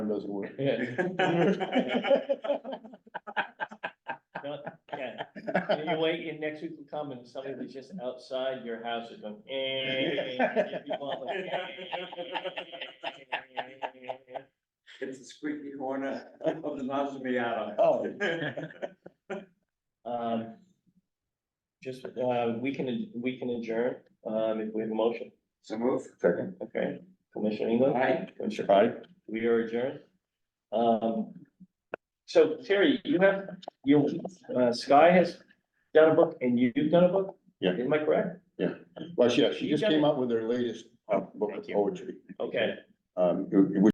doesn't work. No, yeah. And You wait, and next week will come and somebody that's just outside your house is going, eh. and people are like, eh. It's the squeaky corner of the Mazamiata. Oh. Um. Just, uh, we can, we can adjourn, um, if we have a motion, So move. Second. okay? Commissioner England? Aye. Commissioner All right. We are adjourned. Um, so Terry, you have, you, uh, Sky has done a book and you've done a book? Yeah. Am I correct? Well, yeah, she just came out with her latest uh, book of Thank you. poetry. Okay. Um, it- it was